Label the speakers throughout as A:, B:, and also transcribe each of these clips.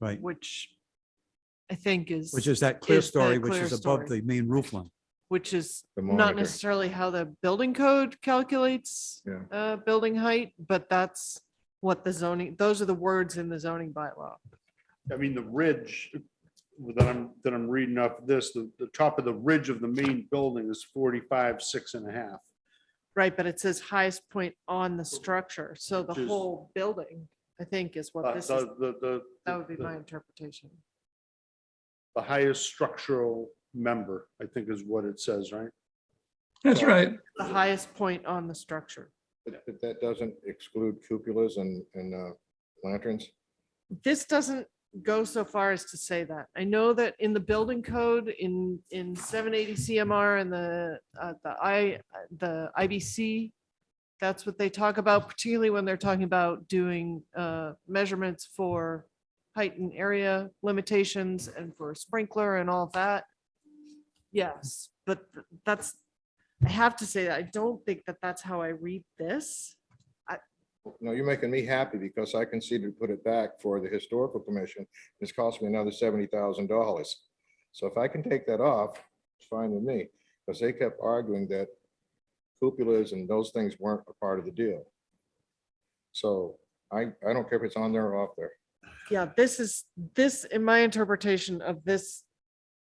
A: Right.
B: which I think is.
A: Which is that clear
B: Is the
A: story, which
B: clear
A: is above the
B: story.
A: main roof line.
B: Which is
C: The
B: not
C: monitor.
B: necessarily how the building code calculates
C: Yeah.
B: uh, building height, but that's what the zoning, those are the words in the zoning bylaw.
D: I mean, the ridge that I'm, that I'm reading off this, the, the top of the ridge of the main building is forty-five, six and a half.
B: Right, but it says highest point on the structure, so the
D: Which is-
B: whole building, I think, is what
D: But
B: this is,
D: the, the, the.
B: that would be
D: the-
B: my interpretation.
D: The highest structural member, I think is what it says, right?
E: That's right.
B: The highest point on the structure.
C: But but that doesn't exclude cupolas and, and uh, lanterns.
B: this doesn't go so far as to say that. I know that in the building code in, in seven eighty CMR and the, uh, the I, the IBC, that's what they talk about, particularly when they're talking about doing, uh, measurements for height and area limitations and for sprinkler and all that. Yes, but that's, I have to say, that I don't think that that's how I read this.
C: No, you're making me happy because I conceded to put it back for the historical commission. It's cost me another seventy thousand dollars. So if I can take that off, it's fine with me, because they kept arguing that cupolas and those things weren't a part of the deal. So I, I don't care if it's on there or off there.
B: Yeah, this is, this, in my interpretation of this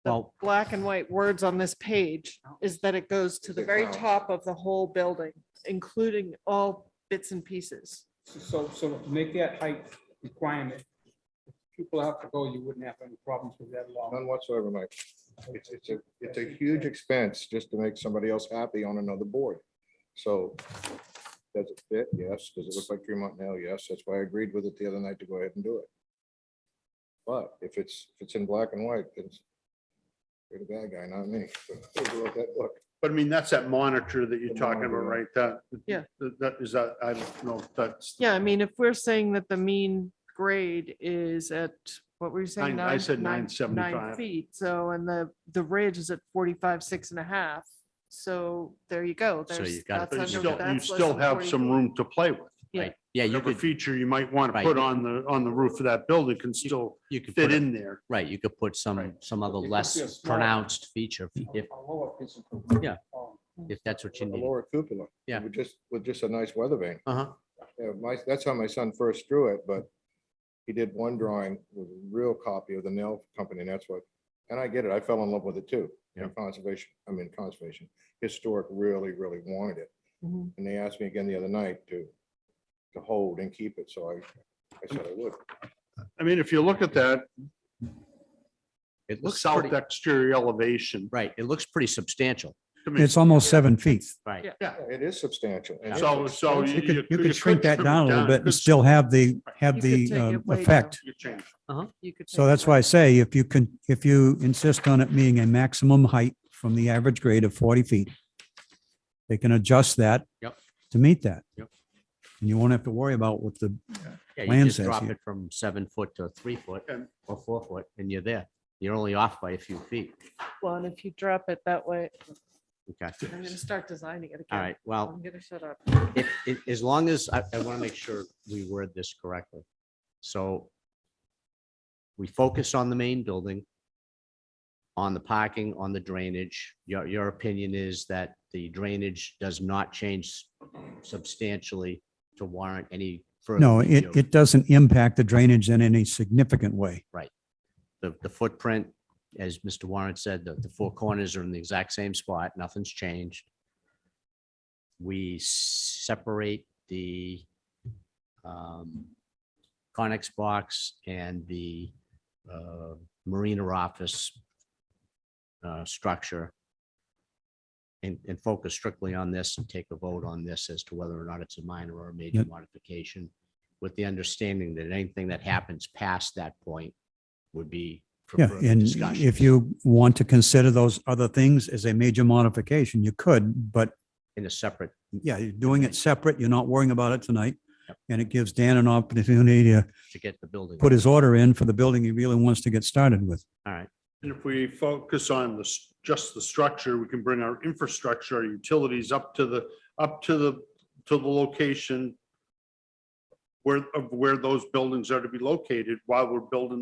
B: the
A: Well,
B: black and white words on this page is that it goes to the
C: Is it
B: very
C: round?
B: top of the whole building, including all bits and pieces.
E: So, so to make that height requirement, if people have to go, you wouldn't have any problems with that law.
C: None whatsoever, Mike. It's, it's a, it's a huge expense just to make somebody else happy on another board. So does it fit? Yes. Does it look like Tremont now? Yes. That's why I agreed with it the other night to go ahead and do it. But if it's, if it's in black and white, it's you're the bad guy, not me. Look at that book.
D: But I mean, that's that monitor that you're
C: The
D: talking about,
C: monitor.
D: right? That.
B: Yeah.
D: that- That is that, I don't know, if that's.
B: Yeah, I mean, if we're saying that the mean grade is at, what were you saying?
D: Nine- I said
B: nine-
D: 975.
B: nine Feet, so, and the, the ridge is at forty-five, six and a half. So there you go.
F: So
B: There's-
F: you've got-
B: that's
D: But
B: under-
D: you still, you
B: that's less
D: still
B: than
D: have
B: 40
D: some
B: feet.
D: room to play with.
B: Yeah.
F: Yeah, you
D: Whatever
F: could,
D: feature you might want to
F: Right.
D: put on the, on the roof of that building can still
F: you could
D: fit
F: put, a-
D: in there.
F: right, you could put some, some other
E: It could be a
F: less
E: small-
F: pronounced feature if,
E: A lower piece of-
F: Yeah.
E: Oh,
F: if that's what
C: A
F: you need.
C: lower cupola.
F: Yeah.
C: With just, with just a nice weather vane.
F: Uh-huh.
C: Yeah, my, that's how my son first drew it, but he did one drawing with a real copy of the nail company, and that's what, and I get it, I fell in love with it too. And conservation, I mean, conservation, historic really, really wanted it,
B: Mhm.
C: and they asked me again the other night to, to hold and keep it, so I, I said I would.
D: I mean, if you look at that,
F: It
D: the
F: looks
D: south
F: pretty,
D: exterior elevation.
F: right, it looks pretty substantial,
D: to me.
A: it's almost seven feet.
F: right?
B: Yeah.
C: Yeah, It is substantial. and it's
D: So, so.
A: You could, you
D: Oh, could
A: could shrink that
D: trim it
A: down a little bit
D: You
A: and
D: could-
A: still have the, have
B: You could
A: the
B: take
A: um,
B: it way
A: effect.
D: you could change.
B: You could
A: So
B: take
A: that's
B: away.
A: why I say if you can, if you insist on it being a maximum height from the average grade of 40 feet, they can adjust that
F: Yep.
A: to meet that.
F: Yep.
A: And you won't have to worry about what the,
F: Yeah,
A: Land
F: you just
A: says
F: drop
A: here.
F: it from seven foot to three foot
D: And-
F: or four foot and you're there. You're only off by a few feet.
B: Well, and if you drop it that way,
F: Okay.
B: I'm gonna start designing it again.
F: All right, well,
B: I'm gonna shut up.
F: If, if, as long as, I, I want to make sure we word this correctly. So we focus on the main building, on the parking, on the drainage. Your, your opinion is that the drainage does not change substantially to warrant any further.
A: no, it,
F: review.
A: it doesn't impact the drainage in any significant way.
F: The, the footprint, as Mr. Warren said, the, the four corners are in the exact same spot. Nothing's changed. We separate the um, Conex box and the uh, Marina office uh, structure and, and focus strictly on this and take a vote on this as to whether or not it's a minor or a major
A: Yep.
F: modification with the understanding that anything that happens past that point would be for
A: Yeah,
F: further
A: and
F: discussion.
A: if you want to consider those other things as a major modification, you could, but
F: in a separate,
A: yeah, you're doing it separate. You're not worrying about it tonight.
F: Yep.
A: And it gives Dan an opportunity to
F: to get the building.
A: put his order in for the building he really wants to get started with.
F: All right,
D: And if we focus on the, s- just the structure, we can bring our infrastructure, our utilities up to the, up to the, to the location where, of where those buildings are to be located while we're building